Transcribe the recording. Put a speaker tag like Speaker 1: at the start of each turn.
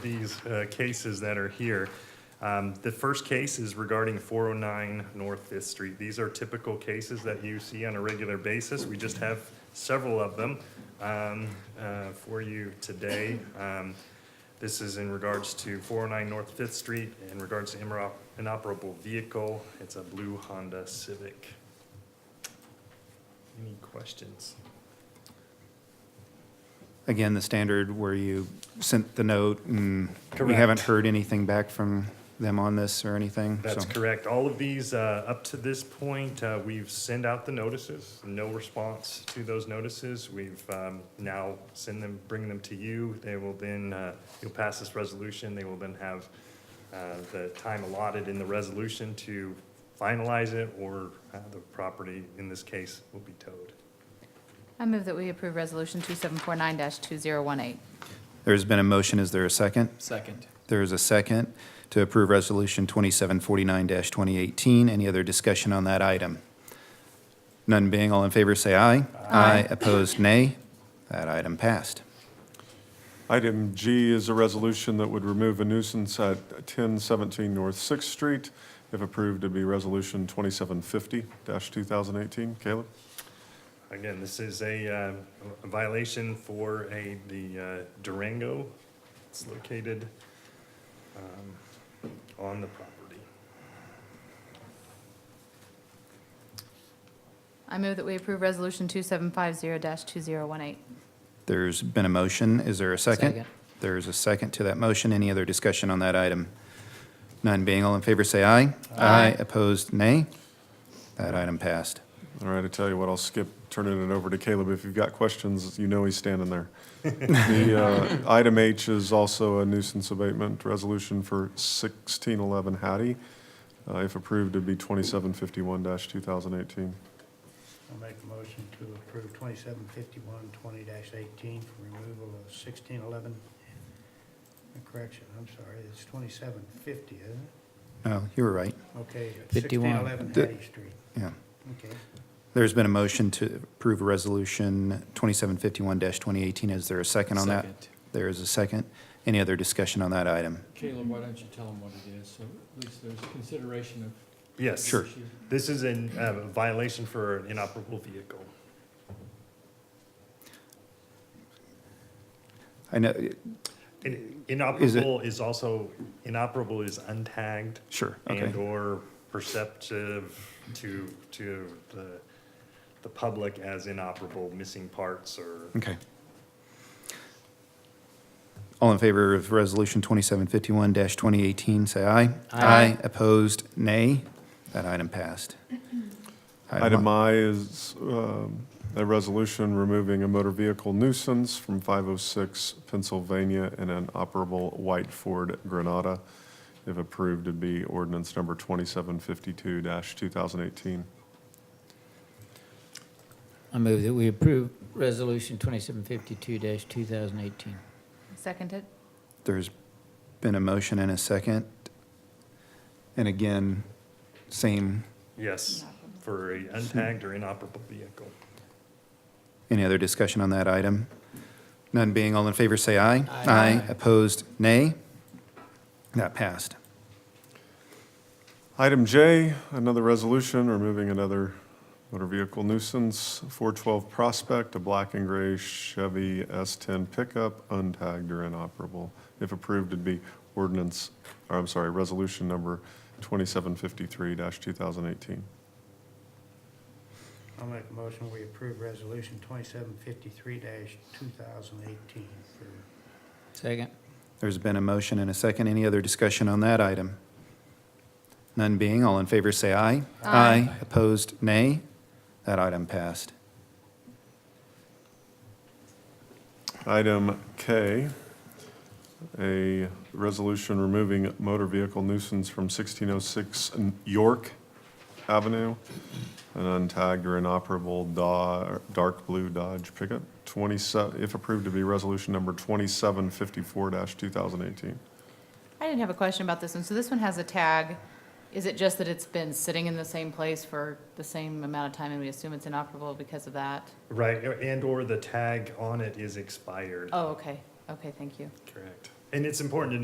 Speaker 1: these uh, cases that are here. Um, The first case is regarding 409 North Fifth Street. These are typical cases that you see on a regular basis. We just have several of them um, uh, for you today. Um, This is in regards to 409 North Fifth Street, in regards to inoper- inoperable vehicle. It's a blue Honda Civic. Any questions?
Speaker 2: Again, the standard where you sent the note and we
Speaker 1: Correct.
Speaker 2: haven't heard anything back from them on this or anything?
Speaker 1: That's
Speaker 2: so-
Speaker 1: correct. All of these, uh, up to this point, uh, we've sent out the notices, no response to those notices. We've um, now send them, bring them to you. They will then, uh, you'll pass this resolution. They will then have uh, the time allotted in the resolution to finalize it, or uh, the property, in this case, will be towed.
Speaker 3: I move that we approve Resolution 2749-2018.
Speaker 2: There's been a motion. Is there a second?
Speaker 4: Second.
Speaker 2: There is a second to approve Resolution 2749-2018. Any other discussion on that item? None being, all in favor, say aye. Aye. Opposed, nay. That item passed.
Speaker 5: Item G is a resolution that would remove a nuisance at 1017 North Sixth Street. If approved, it'd be Resolution 2750-2018. Caleb?
Speaker 1: Again, this is a uh, a violation for a, the uh, Durango. It's located um, on the property.
Speaker 3: I move that we approve Resolution 2750-2018.
Speaker 2: There's been a motion. Is there a second?
Speaker 4: Second.
Speaker 2: There is a second to that motion. Any other discussion on that item? None being, all in favor, say aye. Aye. Opposed, nay. That item passed.
Speaker 5: All right, I tell you what, I'll skip turning it over to Caleb. If you've got questions, you know he's standing there. The uh, Item H is also a nuisance abatement resolution for 1611 Hattie. Uh, If approved, it'd be 2751-2018.
Speaker 6: I'll make a motion to approve twenty-seven fifty-one twenty eighteen for removal of sixteen eleven. Correction, I'm sorry, it's twenty-seven fifty, isn't it?
Speaker 2: Oh, you were right.
Speaker 6: Okay.
Speaker 4: 51.
Speaker 6: Sixteen eleven
Speaker 2: The-
Speaker 6: Hattie Street,
Speaker 2: Yeah.
Speaker 6: okay.
Speaker 2: There's been a motion to approve Resolution 2751-2018. Is there a second on that?
Speaker 4: Second.
Speaker 2: There is a second. Any other discussion on that item?
Speaker 7: Caleb, why don't you tell them what it is, so at least there's consideration of.
Speaker 1: Yes.
Speaker 2: Sure.
Speaker 7: issue.
Speaker 1: This is in uh, violation for an inoperable vehicle.
Speaker 2: I know,
Speaker 1: In- Inoperable is also, inoperable is untagged
Speaker 2: sure, okay.
Speaker 1: and/or perceptive to, to the, the public as inoperable, missing parts or
Speaker 2: Okay. All in favor of Resolution 2751-2018, say aye. Aye. Opposed, nay. That item passed.
Speaker 5: Item I is um, a resolution removing a motor vehicle nuisance from 506 Pennsylvania and an operable white Ford Granada. If approved, it'd be ordinance number 2752-2018.
Speaker 4: I move that we approve Resolution 2752-2018.
Speaker 3: Seconded.
Speaker 2: There's been a motion and a second. And again, same.
Speaker 1: yes, for a untagged or inoperable vehicle.
Speaker 2: Any other discussion on that item? None being, all in favor, say aye.
Speaker 4: Aye.
Speaker 2: Opposed, nay. That passed.
Speaker 5: Item J, another resolution removing another motor vehicle nuisance, 412 Prospect, a black and gray Chevy S10 pickup, untagged or inoperable. If approved, it'd be ordinance, or I'm sorry, resolution number 2753-2018.
Speaker 6: I'll make a motion, we approve resolution twenty-seven fifty-three two thousand eighteen for
Speaker 4: Second.
Speaker 2: There's been a motion and a second. Any other discussion on that item? None being, all in favor, say aye.
Speaker 3: Aye.
Speaker 2: Opposed, nay. That item passed.
Speaker 5: Item K, a resolution removing motor vehicle nuisance from 1606 York Avenue, an untagged or inoperable Dodge, dark blue Dodge pickup, 27, if approved to be resolution number 2754-2018.
Speaker 3: I didn't have a question about this one. So this one has a tag. Is it just that it's been sitting in the same place for the same amount of time and we assume it's inoperable because of that?
Speaker 1: Right, and/or the tag on it is expired.
Speaker 2: Oh.
Speaker 3: Oh, okay. Okay, thank you.
Speaker 1: Correct. And it's important to